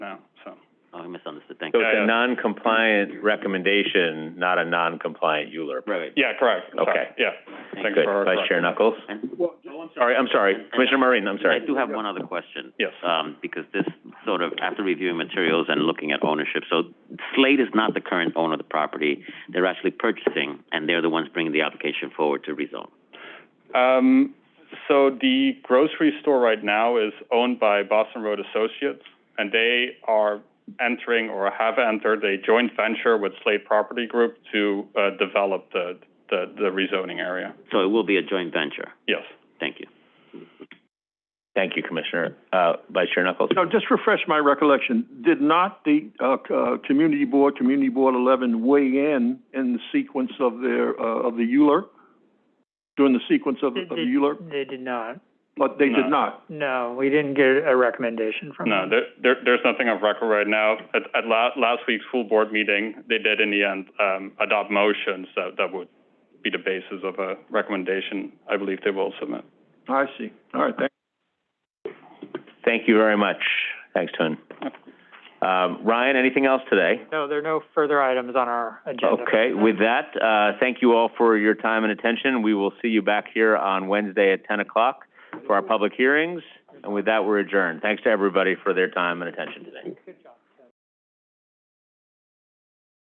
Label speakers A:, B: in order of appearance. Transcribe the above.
A: Oh, misunderstood, thank
B: So
A: you.
B: it's
C: Yeah, yeah.
B: a non-compliant recommendation, not a non-compliant ULURP.
A: Right,
C: Yeah, correct. Sorry.
B: Okay.
C: Yeah.
A: Thank
C: Thanks
B: Good.
C: for
B: Vice Chair
C: correcting.
B: Knuckles?
A: And-
B: All right, I'm sorry. Commissioner Maureen, I'm
A: I
B: sorry.
A: do have one other question.
C: Yes.
A: Um, because this sort of, after reviewing materials and looking at ownership, so Slate is not the current owner of the property. They're actually purchasing, and they're the ones bringing the application forward to rezone.
C: Um, so the grocery store right now is owned by Boston Road Associates, and they are entering or have entered a joint venture with Slate Property Group to, uh, develop the, the, the rezoning area.
A: So it will be a joint venture.
C: Yes.
A: Thank you.
B: Thank you, Commissioner, uh, Vice Chair Knuckles.
D: Now, just refresh my recollection, did not the, uh, c- uh, community board, community board eleven weigh in in the sequence of their, uh, of the ULURP? During the sequence of,
E: They-
D: of the ULURP,
E: They did not.
D: but they
C: No.
D: did not.
E: No, we didn't get a recommendation from
C: No,
E: them.
C: there, there, there's nothing of record right now. At, at la- last week's full board meeting, they did in the end, um, adopt motions that, that would be the basis of a recommendation I believe they will submit.
D: I see. All right, thank
B: Thank you very much. Thanks, Tun. Um, Ryan, anything else today?
E: No, there are no further items on our agenda.
B: Okay, with that, uh, thank you all for your time and attention. We will see you back here on Wednesday at ten o'clock for our public hearings. And with that, we're adjourned. Thanks to everybody for their time and attention today.